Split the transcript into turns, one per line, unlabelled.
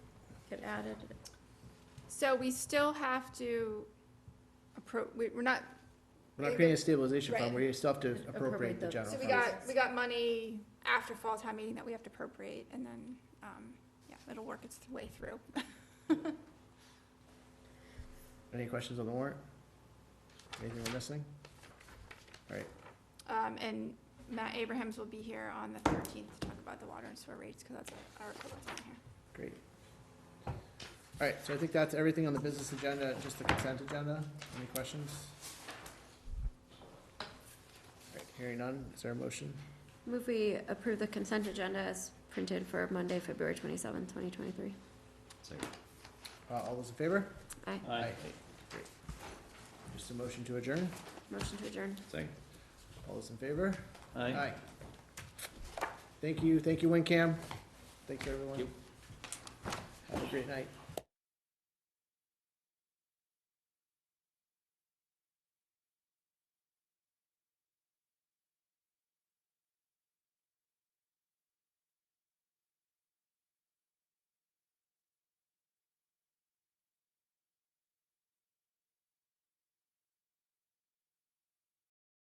get added. So we still have to appro, we- we're not,
We're not creating a stabilization
Right.
fund, we still have to
Appropriate
appropriate the
the-
general
so we
fund.
got, we got money after fall town meeting that we have to appropriate, and then, um, yeah, it'll work its way through.
Any questions on the warrant? Anything we're missing?
Um, and Matt Abrahams will be here on the thirteenth to talk about the water and sewer rates, because that's our equivalent on here.
Great. All right, so I think that's everything on the business agenda, just the consent agenda. Any questions? All right, hearing none, is there a motion?
Move we approve the consent agenda as printed for Monday, February twenty-seventh, twenty twenty-three.
Uh, all those in favor?
Aye.
Aye. Great. Just a motion to adjourn,
Motion to adjourn.
Second.
all those in favor?
Aye.
Thank you, thank you, WinCam. Thank you, everyone.
Yep.
Have a great night.